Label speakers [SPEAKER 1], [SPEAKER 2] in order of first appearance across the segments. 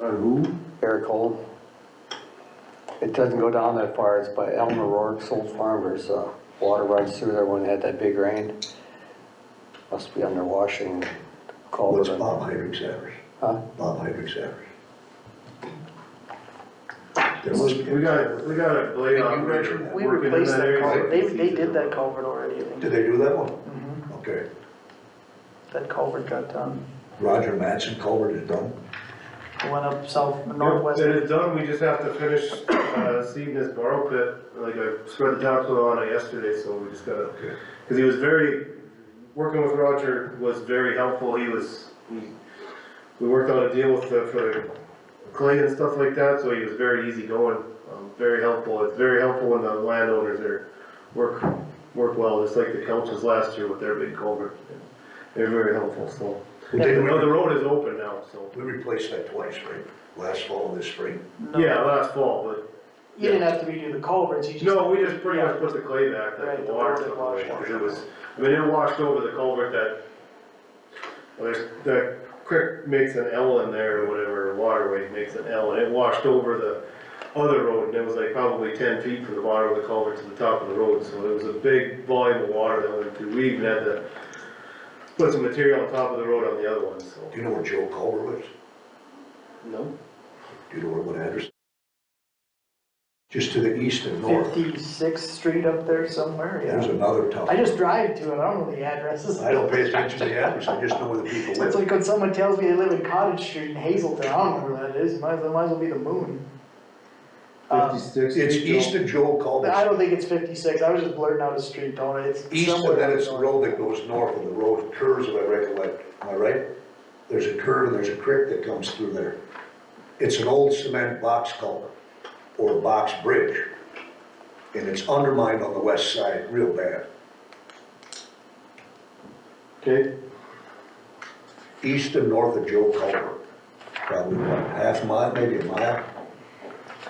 [SPEAKER 1] Or who?
[SPEAKER 2] Eric Holm. It doesn't go down that far, it's by Elmer Rourke's old farm, there's, uh, water runs through there when it had that big rain. Must be under washing
[SPEAKER 3] What's
[SPEAKER 2] culvert.
[SPEAKER 3] Bob Hydrick's average?
[SPEAKER 2] Huh?
[SPEAKER 3] Bob Hydrick's average? There must be,
[SPEAKER 1] We got, a- we got a blade operator
[SPEAKER 4] We
[SPEAKER 1] working in
[SPEAKER 4] replaced
[SPEAKER 1] that
[SPEAKER 4] that culvert,
[SPEAKER 1] area.
[SPEAKER 4] they, they did that culvert already, I think. Mm-hmm.
[SPEAKER 3] did they do that one? Okay,
[SPEAKER 4] that culvert got done,
[SPEAKER 3] Roger Matson culvert is done,
[SPEAKER 4] It went up south,
[SPEAKER 1] Yep,
[SPEAKER 4] northwest.
[SPEAKER 1] That is done, we just have to finish, uh, seeding this borrow pit, like I spread the topsoil on it yesterday, so we just gotta,
[SPEAKER 3] okay.
[SPEAKER 1] cause he was very, working with Roger was very helpful, he was, we, we worked out a deal with the, for clay and stuff like that, so he was very easygoing, um, very helpful, it's very helpful when the landowners are, work, work well, just like the Kelches last year with their big culvert. They're very helpful, so.
[SPEAKER 3] Well,
[SPEAKER 1] The
[SPEAKER 3] didn't
[SPEAKER 1] road the
[SPEAKER 3] we,
[SPEAKER 1] road is open now, so,
[SPEAKER 3] we replaced that twice, right? Last fall and this spring?
[SPEAKER 4] No,
[SPEAKER 1] yeah, last fall, but
[SPEAKER 4] You didn't have to redo the culverts, you just.
[SPEAKER 1] No, we just pretty much put the clay back,
[SPEAKER 4] Right,
[SPEAKER 1] that the
[SPEAKER 4] the
[SPEAKER 1] water
[SPEAKER 4] water
[SPEAKER 1] took away,
[SPEAKER 4] washed
[SPEAKER 1] 'cause it was, I mean, it washed over the culvert that, well, there's, the creek makes an L in there or whatever, waterway makes an L, and it washed over the other road, and it was like probably ten feet from the bottom of the culvert to the top of the road, so it was a big volume of water that went through, we even had to put some material on top of the road on the other one, so.
[SPEAKER 3] Do you know where Joe Culver lives?
[SPEAKER 1] No.
[SPEAKER 3] Do you know where, what address? Just to the east and north,
[SPEAKER 4] Fifty-sixth Street up there somewhere,
[SPEAKER 3] there's
[SPEAKER 4] yeah.
[SPEAKER 3] another tough.
[SPEAKER 4] I just drive to it, I don't know the addresses.
[SPEAKER 3] I don't pay attention to the address, I just know where the people
[SPEAKER 4] It's
[SPEAKER 3] live.
[SPEAKER 4] like when someone tells me they live in Cottage Street in Hazelton, I don't know where that is, might as well, might as well be the moon. Um,
[SPEAKER 1] Fifty-six.
[SPEAKER 3] It's east of Joe
[SPEAKER 4] I
[SPEAKER 3] Culver,
[SPEAKER 4] don't think it's fifty-six, I was just blurting out a street, don't I? It's
[SPEAKER 3] east
[SPEAKER 4] somewhere
[SPEAKER 3] and then it's the
[SPEAKER 4] up
[SPEAKER 3] road that goes north and the road curves, if I recollect, am I right? There's a curve and there's a creek that comes through there. It's an old cement box culvert, or box bridge, and it's undermined on the west side real bad.
[SPEAKER 1] Okay,
[SPEAKER 3] east and north of Joe Culver. Probably what, half mile, maybe a mile?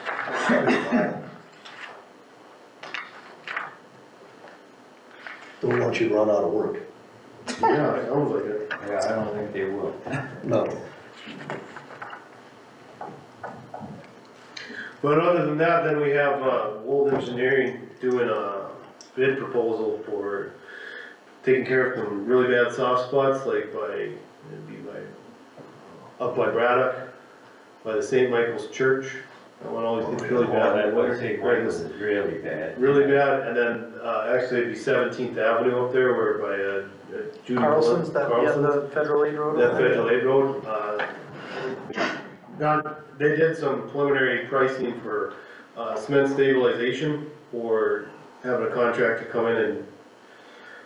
[SPEAKER 3] Probably a mile. Don't want you to run out of work.
[SPEAKER 1] yeah, it sounds like it.
[SPEAKER 5] Yeah, I don't think they will.
[SPEAKER 3] No.
[SPEAKER 1] But other than that, then we have, uh, Wold Engineering doing a bid proposal for taking care of some really bad soft spots, like by, it'd be by, uh, up by Braddock, by the St. Michael's Church. That one always gets really bad.
[SPEAKER 5] Well, I would say
[SPEAKER 1] Right,
[SPEAKER 5] Greg was really bad.
[SPEAKER 1] Really bad, and then, uh, actually it'd be Seventeenth Avenue up there where by, uh, Judy.
[SPEAKER 4] Carlson's, that, yeah,
[SPEAKER 1] Carlson's.
[SPEAKER 4] the federal aid road.
[SPEAKER 1] That federal aid road, uh, not, they did some preliminary pricing for, uh, cement stabilization or having a contractor come in and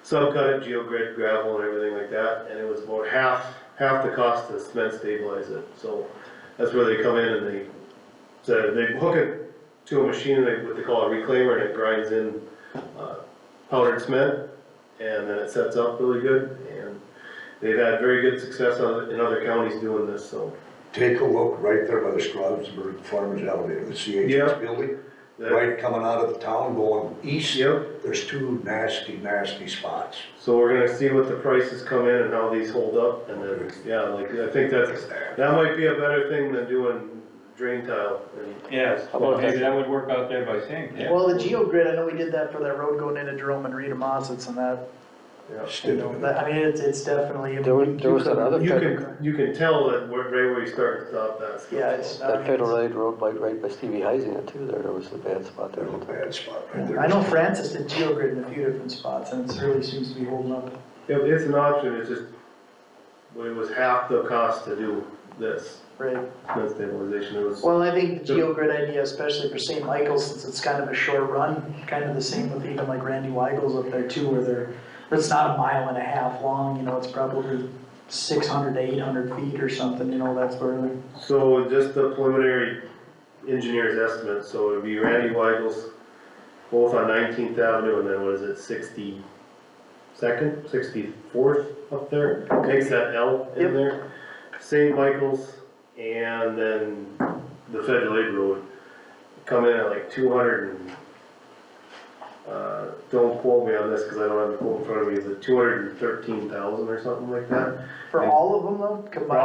[SPEAKER 1] subcut it, geogrid gravel and everything like that, and it was about half, half the cost to cement stabilize it, so that's where they come in and they, so they hook it to a machine, they, what they call a reclaimer, and it grinds in, uh, powdered cement, and then it sets up really good, and They've had very good success on- in other counties doing this, so.
[SPEAKER 3] Take a look right there by the Strasburg Farmers Elevator, the
[SPEAKER 1] Yeah.
[SPEAKER 3] CHS building.
[SPEAKER 1] that-
[SPEAKER 3] Right coming out of the town going east,
[SPEAKER 1] Yep,
[SPEAKER 3] there's two nasty, nasty spots.
[SPEAKER 1] so we're gonna see what the prices come in and how these hold up, and then, yeah, like, I think that's, that might be a better thing than doing drain tile. and-
[SPEAKER 5] Yes,
[SPEAKER 2] about
[SPEAKER 5] well, maybe
[SPEAKER 2] that?
[SPEAKER 5] that would work out there by saying, yeah.
[SPEAKER 4] Well, the GeoGrid, I know we did that for that road going into Jerome and Rita Mossett's and that,
[SPEAKER 1] yeah.
[SPEAKER 4] you
[SPEAKER 3] Stiff.
[SPEAKER 4] know, that, I mean, it's, it's definitely,
[SPEAKER 2] There was, there was that other,
[SPEAKER 1] You
[SPEAKER 2] fed-
[SPEAKER 1] can, you can tell that where, right where you start and stop that stuff.
[SPEAKER 4] yeah, it's. I
[SPEAKER 2] that
[SPEAKER 4] mean,
[SPEAKER 2] federal aid road like right by Stevie Heising too, there, there was a bad spot there.
[SPEAKER 3] There's a bad spot right there.
[SPEAKER 4] I know Francis did GeoGrid in a few different spots and it really seems to be holding up.
[SPEAKER 1] Yep, it's an option, it's just, well, it was half the cost to do this,
[SPEAKER 4] Right.
[SPEAKER 1] cement stabilization, it was.
[SPEAKER 4] Well, I think the GeoGrid idea, especially for St. Michael's, since it's kind of a short run, kind of the same with even like Randy Weigel's up there too, where they're, it's not a mile and a half long, you know, it's probably six hundred to eight hundred feet or something, you know, that's where they're.
[SPEAKER 1] So just the preliminary engineer's estimate, so it'd be Randy Weigel's, both on Nineteenth Avenue and then what is it, sixty-second, sixty-fourth up there? Makes that L
[SPEAKER 4] Yep.
[SPEAKER 1] in there. St. Michael's and then the Federal Aid Road come in at like two hundred and, uh, don't quote me on this because I don't have the quote in front of me, is it two hundred and thirteen thousand or something like that?
[SPEAKER 4] For all of them though, combined?